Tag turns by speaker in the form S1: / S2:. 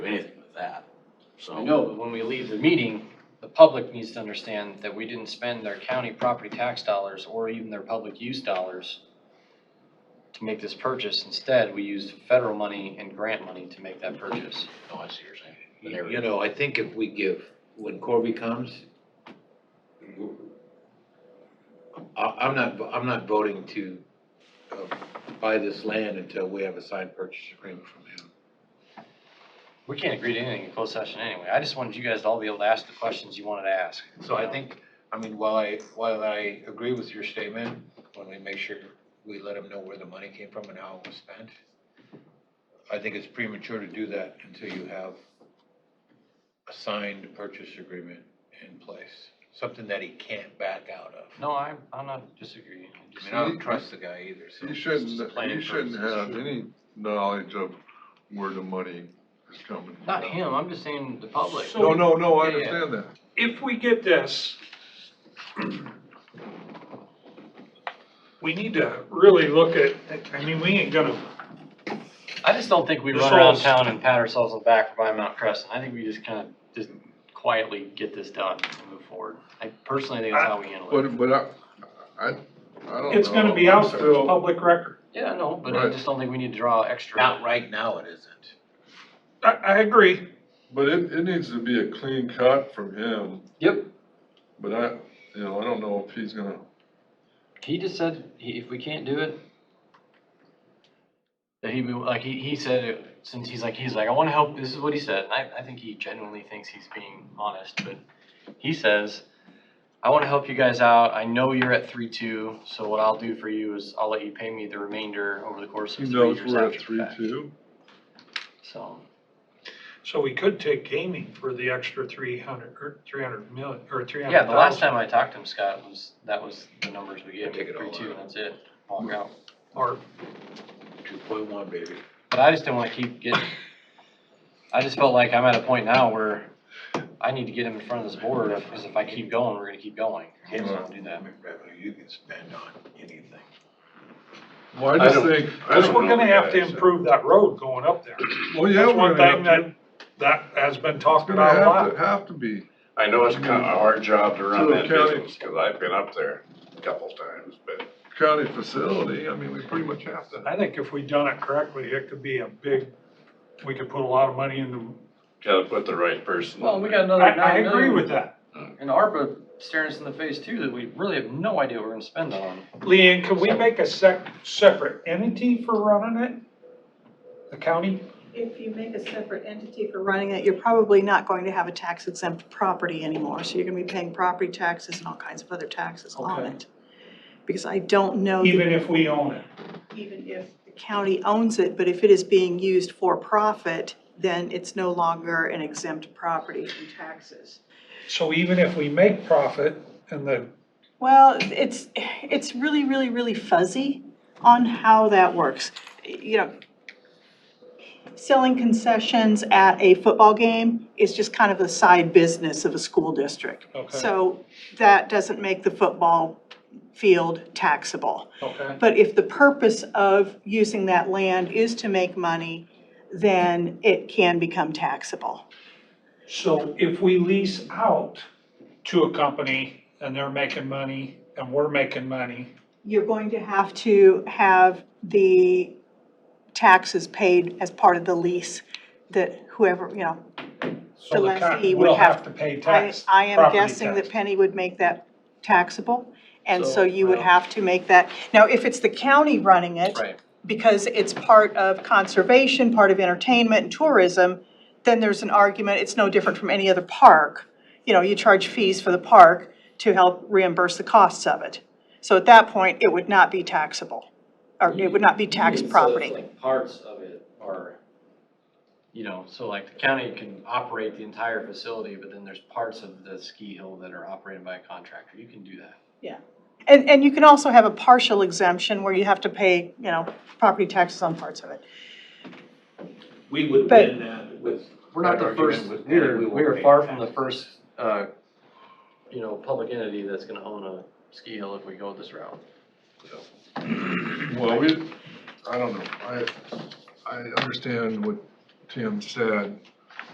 S1: I
S2: so.
S1: know, but when we leave the meeting, the public needs to understand that we didn't spend their county property tax dollars or even their public use dollars to make this purchase. Instead, we used federal money and grant money to make that purchase.
S2: No, oh, I see what you're saying. But
S3: You
S2: every-
S3: you know, I think if we give, when Corby comes, I, I'm not, I'm not voting to uh, buy this land until we have a signed purchase agreement from him.
S1: We can't agree to anything in closed session anyway. I just wanted you guys to all be able to ask the questions you wanted to ask.
S3: So I think, I mean, while I, while I agree with your statement, when we make sure we let him know where the money came from and how it was spent, I think it's premature to do that until you have a signed purchase agreement in place, something that he can't back out of.
S1: No, I'm, I'm not disagreeing. I
S3: I
S1: just-
S3: mean, I don't trust the guy either, so.
S4: He
S2: It's
S4: shouldn't,
S2: just planning
S4: he shouldn't
S2: purposes,
S4: have
S2: sure.
S4: any knowledge of where the money is coming from.
S1: Not him, I'm just saying the public.
S5: So-
S4: No, no, no,
S1: Yeah,
S4: I
S1: yeah.
S4: understand that.
S5: if we get this, we need to really look at, I mean, we ain't gonna,
S1: I just don't think we
S5: This
S1: run around
S5: was-
S1: town and pat ourselves on the back for buying Mount Crescent. I think we just kind of, just quietly get this done and move forward. I personally think that's how we handle it.
S4: But, but I, I, I don't know.
S5: it's gonna be out there, it's public record.
S1: Yeah, no, but I
S4: Right.
S1: just don't think we need to draw
S3: Not
S1: extra.
S3: right now, it isn't.
S5: I, I agree.
S4: But it, it needs to be a clean cut from him,
S1: Yep.
S4: but I, you know, I don't know if he's gonna,
S1: He just said, he, if we can't do it, that he, would- like, he, he said, it since he's like, he's like, I wanna help, this is what he said. And I, I think he genuinely thinks he's being honest, but he says, I wanna help you guys out. I know you're at three two, so what I'll do for you is I'll let you pay me the remainder over the course
S4: he
S1: of three
S4: knows
S1: years
S4: we're at
S1: after the
S4: three
S1: fact."
S4: two.
S1: So,
S5: So we could take gaming for the extra three hundred, or three hundred million, or three hundred
S1: yeah,
S5: thousand.
S1: the last time I talked to him, Scott, was, that was the numbers we gave,
S3: Take it all
S1: three two,
S3: out.
S1: and that's it. Walk out.
S5: Or,
S3: Two point one, baby.
S1: But I just didn't wanna keep getting, I just felt like I'm at a point now where I need to get him in front of this board, because if I keep going, we're gonna keep going. I just don't wanna do that.
S3: Revenue you can spend on anything.
S4: Well,
S5: I
S4: I just
S5: don't-
S4: think. I
S5: cause
S4: don't
S5: we're
S4: know
S5: gonna
S4: the
S5: have to
S4: guys.
S5: improve that road going up there.
S4: Well, yeah,
S5: That's
S4: we're
S5: one
S4: gonna
S5: thing
S4: have to,
S5: that, that has been
S4: it's
S5: talked
S4: gonna
S5: about a
S4: have to,
S5: lot.
S4: have to be.
S6: I know it's kind of a hard job to run
S4: So
S6: that
S4: county-
S6: business, because I've been up there a couple times, but
S4: County facility, I mean, we pretty much have to.
S5: I think if we done it correctly, it could be a big, we could put a lot of money into,
S6: gotta put the right person.
S1: Well, we got
S5: I,
S1: another
S5: I
S1: nine
S5: agree
S1: million,
S5: with that.
S1: and ARPA staring us in the face too, that we really have no idea what we're gonna spend on.
S5: Leanne, can we make a sec, separate entity for running it? The county?
S7: If you make a separate entity for running it, you're probably not going to have a tax exempt property anymore, so you're gonna be paying property taxes and all kinds of other taxes on
S5: Okay.
S7: it. Because I don't know, that
S5: Even if we own it?
S7: even if the county owns it, but if it is being used for profit, then it's no longer an exempt property from taxes.
S5: So even if we make profit and the,
S7: Well, it's, it's really, really, really fuzzy on how that works. You know, selling concessions at a football game is just kind of a side business of a school district.
S5: okay,
S7: So that doesn't make the football field taxable.
S5: okay,
S7: But if the purpose of using that land is to make money, then it can become taxable.
S5: so if we lease out to a company and they're making money and we're making money,
S7: you're going to have to have the taxes paid as part of the lease that whoever, you know, The
S5: so the
S7: lessee
S5: county
S7: would
S5: will
S7: have-
S5: have to pay
S7: I,
S5: tax,
S7: I am
S5: property
S7: guessing that
S5: tax.
S7: Penny would make that taxable. And
S1: So-
S7: so you would
S5: Wow.
S7: have to make that, now, if it's the county running it,
S1: Right.
S7: because it's part of conservation, part of entertainment and tourism, then there's an argument, it's no different from any other park. You know, you charge fees for the park to help reimburse the costs of it. So at that point, it would not be taxable, or it would not
S1: Mm-hmm.
S7: be taxed property.
S1: Parts of it are, you know, so like the county can operate the entire facility, but then there's parts of the ski hill that are operated by a contractor. You can do that.
S7: And, and you can also have a partial exemption where you have to pay, you know, property taxes on parts of it.
S3: We would
S7: But-
S3: win that with.
S1: We're not the
S3: that
S1: first,
S3: argument with Penny,
S1: we're,
S3: we won't
S1: we're
S3: pay
S1: far from the
S3: tax.
S1: first, uh, you know, public entity that's gonna own a ski hill if we go this route.
S4: Well, we, I don't know, I, I understand what Tim said,